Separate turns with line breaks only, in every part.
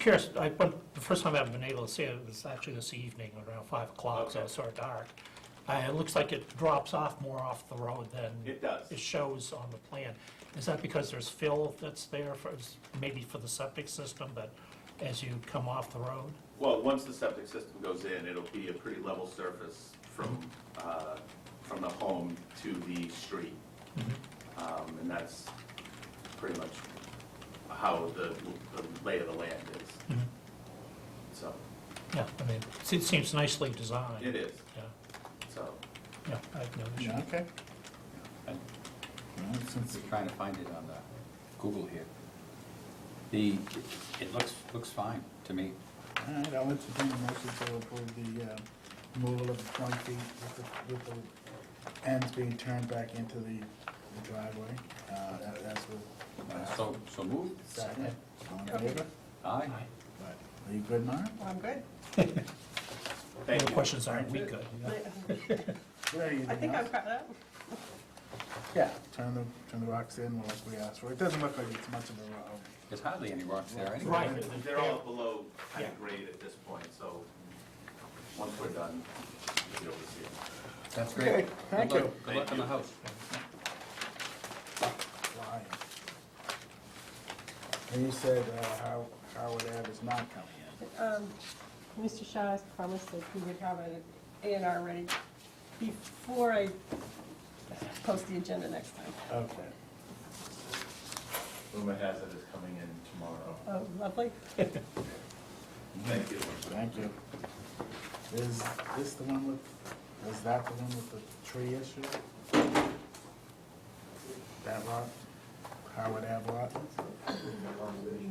curious, I, but the first time I've been able to see it was actually this evening around five o'clock, so it's sort of dark. Uh, it looks like it drops off more off the road than.
It does.
It shows on the plan. Is that because there's fill that's there for, maybe for the septic system, but as you come off the road?
Well, once the septic system goes in, it'll be a pretty level surface from, uh, from the home to the street. Um, And that's pretty much how the the lay of the land is. So,
Yeah, I mean, it seems nicely designed.
it is,
Yeah,
so.
yeah, I have no issue.
Yeah, okay.
Since we're trying to find it on the Google here. The, it looks, looks fine to me.
All right, I'll entertain a motion to approve the uh, removal of the twenty feet with the, with the ends being turned back into the the driveway. Uh, that- That's what. uh,
So, so moved.
Second, all in favor?
Aye.
Aye.
Right. Are you good, Mara?
Well, I'm good.
Thank
Any
you.
questions on it? We good?
I think I've got that.
Yeah, turn the, turn the rocks in like we asked for. It doesn't look like it's much of a rock.
There's hardly any rocks there anyway.
Right.
They're all below kind
Yeah.
of grade at this point, so once we're done, you'll be able to see it.
That's
Okay,
great.
thank
Good
you.
luck- Good luck on the house.
Lion. And you said uh, How- Howard Ave is not coming in.
Um, Mr. Shaw has promised that he would have an A and R ready before I post the agenda next time.
Okay.
Uma Hazard is coming in tomorrow.
Oh, lovely.
Thank you.
Thank you. Is this the one with, is that the one with the tree issue? That lot? Howard Ave lot?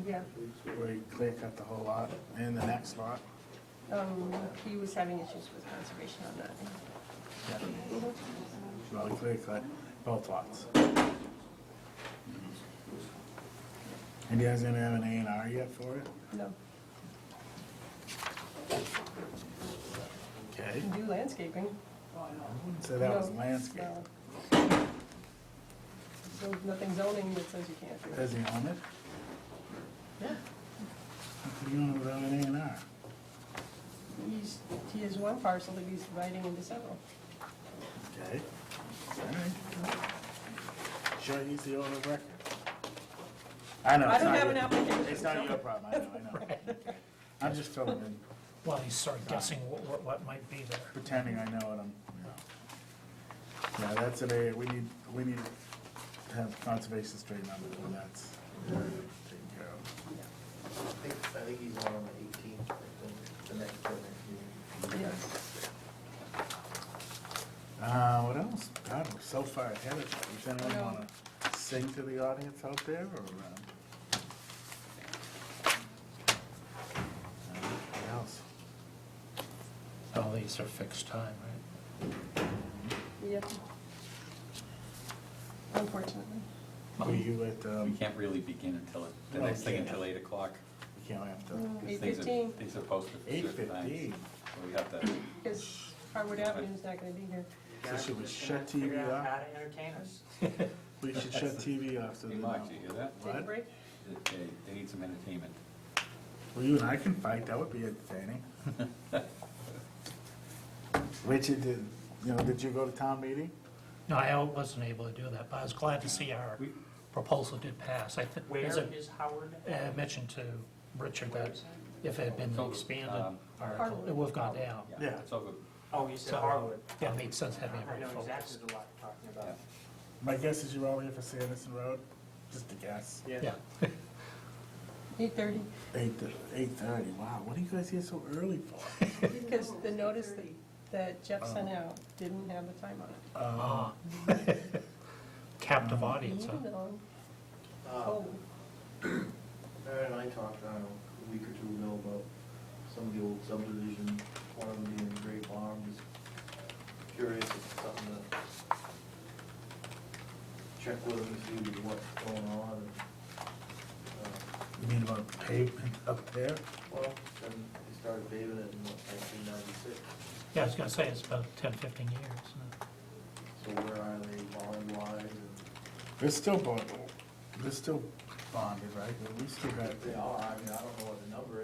Yeah.
Where you clear cut the whole lot and the next lot?
Um, He was having issues with conservation on that.
Well, he clear cut both lots. Mm-hmm. And you guys gonna have an A and R yet for it?
No,
Okay.
you can do landscaping.
So that was
No,
landscape.
no. So Nothing zoning that says you can't do it.
Does he own it?
Yeah.
How could he own it without an A and R?
He's, he has one parcel that he's dividing into several.
Okay. All right. Sure, he's the owner of record. I know.
I
it's
don't
not
have
your-
an application.
It's not your problem, I know, I know. Okay. I'm just filling in,
Well, he's sort of guessing what, what- what might be there.
pretending I know what I'm, you know. Yeah, that's an area, we need, we need to have conservation straightened out, and that's taken care of.
I think, I think he's on the eighteenth, the next, the next meeting.
Yes.
Uh, what else? God, we're so far ahead of it. Does anyone wanna sing to the audience out there, or? uh, What else?
All Oh, these are fixed time, right?
Yep. Unfortunately.
Were you at,
We
um,
can't really begin until, it- the
No,
next thing
can't.
until eight o'clock.
we can't have to,
Mm.
'cause
Eight
things are-
fifteen
Things are posted for
eight
certain times.
fifteen?
So we have to,
is Harwood Avenue's not gonna be here.
So should we shut TV off? We should shut TV off so
hey
they
Mark,
know.
do you hear that?
Take a
What?
break.
They- They, they need some entertainment.
Well, you and I can fight, that would be entertaining. Richard, did, you know, did you go to town meeting?
No, I wasn't able to do that, but I was glad to see our proposal did pass. I think,
Where
as I
is Howard?
uh, mentioned to Richard, that if it had been an expanded
Um,
article, it would have gone down.
Yeah.
It's over,
Oh, you said
So-
Harwood.
That made sense having
I
it
know
refocused.
exactly the lot you're talking
yeah.
about.
My guess is you're all here for Sanderson Road, just a guess.
Yeah,
Eight thirty,
Eight, eight thirty, wow, what are you guys here so early for?
because the notice that- that Jeff sent out didn't have the time on it.
Um,
Oh.
Ah. captive audience, huh?
Even though,
Uh,
oh,
Barry and I talked, I don't know, a week or two ago about some of the old subdivision, one of them being Great Farm, just curious if it's something to check with them and see what's going on and, uh,
You mean about pavement up there?
well, then they started paving it in what, nineteen ninety-six,
Yeah, I was gonna say, it's about 10, 15 years. huh?
so where are they bond wise and
They're still bonded, they're still bonded, right? We still got.
if they are, I mean, I don't know what the number